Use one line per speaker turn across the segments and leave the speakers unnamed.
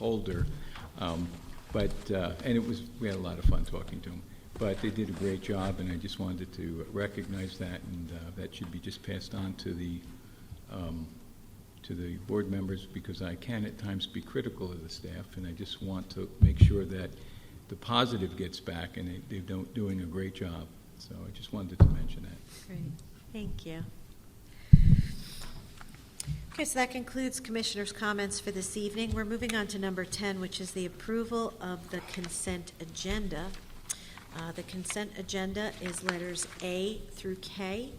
holder. Um, But, uh, and it was, we had a lot of fun talking to them. But they did a great job, and I just wanted to recognize that, and uh, that should be just passed on to the, um, to the board members, because I can at times be critical of the staff, and I just want to make sure that the positive gets back, and they- they're do- doing a great job. So I just wanted to mention that.
Great, thank you. Okay, so that concludes Commissioners' comments for this evening. We're moving on to number 10, which is the approval of the consent agenda. Uh, The consent agenda is letters A through K.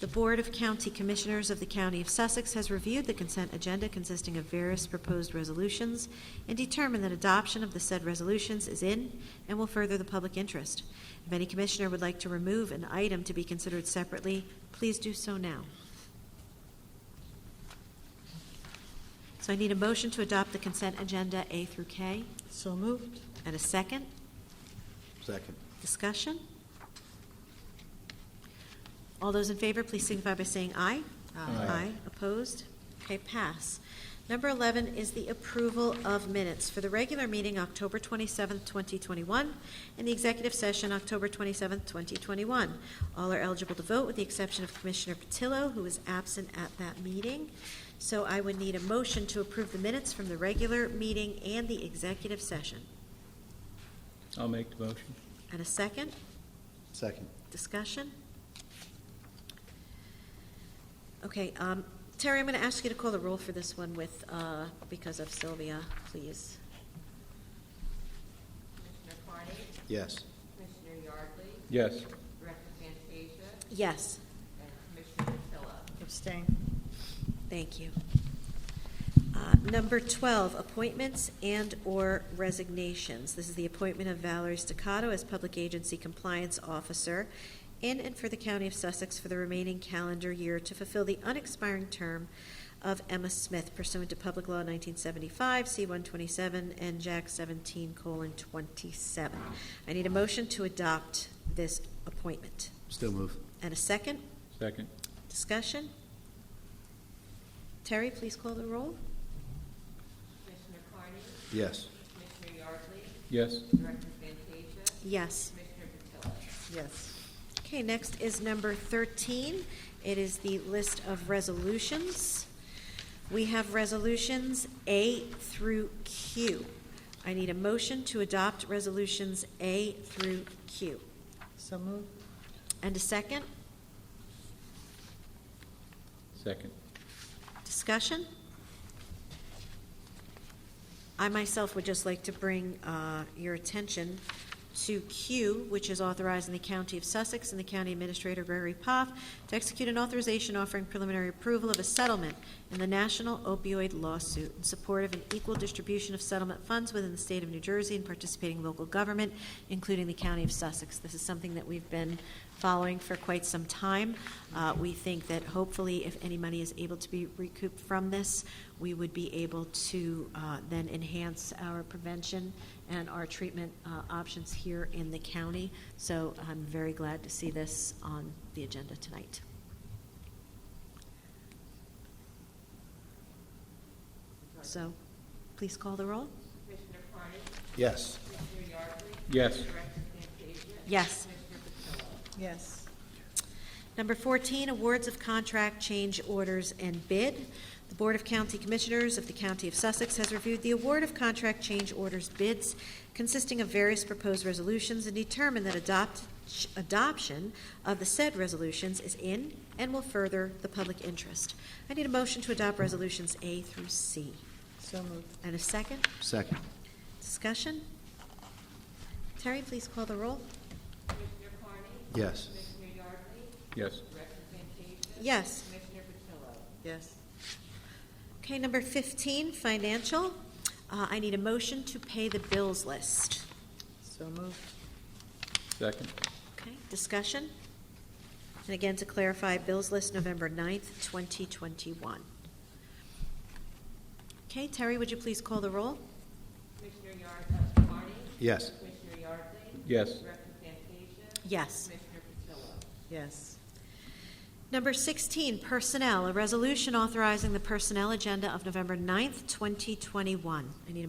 The Board of County Commissioners of the County of Sussex has reviewed the consent agenda consisting of various proposed resolutions and determined that adoption of the said resolutions is in and will further the public interest. If any commissioner would like to remove an item to be considered separately, please do so now. So I need a motion to adopt the consent agenda A through K.
So moved.
And a second?
Second.
Discussion? All those in favor, please signify by saying aye.
Aye.
Opposed? Okay, pass. Number 11 is the approval of minutes for the regular meeting, October 27th, 2021, and the executive session, October 27th, 2021. All are eligible to vote with the exception of Commissioner Patillo, who is absent at that meeting. So I would need a motion to approve the minutes from the regular meeting and the executive session.
I'll make the motion.
And a second?
Second.
Discussion? Okay, um, Terry, I'm going to ask you to call the roll for this one with, uh, because of Sylvia, please.
Commissioner Carney?
Yes.
Commissioner Yardley?
Yes.
Director Fantasia?
Yes,
And Commissioner Patillo?
Abstain.
thank you. Uh, Number 12, appointments and/or resignations. This is the appointment of Valerie Staccato as Public Agency Compliance Officer in and for the County of Sussex for the remaining calendar year to fulfill the unexpiring term of Emma Smith pursuant to Public Law 1975, C-127, and Jack 17, colon, 27. I need a motion to adopt this appointment.
Still move.
And a second?
Second.
Discussion? Terry, please call the roll.
Commissioner Carney?
Yes.
Commissioner Yardley?
Yes.
Director Fantasia?
Yes.
Commissioner Patillo?
Yes.
Okay, next is number 13. It is the list of resolutions. We have resolutions A through Q. I need a motion to adopt resolutions A through Q.
So moved.
And a second?
Second.
Discussion? I myself would just like to bring uh, your attention to Q, which is authorizing the County of Sussex and the County Administrator Gregory Poff to execute an authorization offering preliminary approval of a settlement in the national opioid lawsuit in support of an equal distribution of settlement funds within the state of New Jersey and participating local government, including the County of Sussex. This is something that we've been following for quite some time. Uh, We think that hopefully, if any money is able to be recouped from this, we would be able to uh, then enhance our prevention and our treatment uh, options here in the county. So I'm very glad to see this on the agenda tonight. So please call the roll.
Commissioner Carney?
Yes.
Commissioner Yardley?
Yes.
Director Fantasia?
Yes.
Commissioner Patillo?
Yes.
Number 14, awards of contract change orders and bid. The Board of County Commissioners of the County of Sussex has reviewed the award of contract change orders bids consisting of various proposed resolutions and determined that adopt, adoption of the said resolutions is in and will further the public interest. I need a motion to adopt resolutions A through C.
So moved.
And a second?
Second.
Discussion? Terry, please call the roll.
Commissioner Carney?
Yes.
Commissioner Yardley?
Yes.
Director Fantasia?
Yes.
Commissioner Patillo?
Yes.
Okay, number 15, financial. Uh, I need a motion to pay the bills list.
So moved.
Second.
Okay, discussion? And again, to clarify, bills list November 9th, 2021. Okay, Terry, would you please call the roll?
Commissioner Yardley? Carney?
Yes.
Commissioner Yardley?
Yes.
Director Fantasia?
Yes.
Commissioner Patillo?
Yes.
Number 16, personnel, a resolution authorizing the personnel agenda of November 9th, 2021. I need a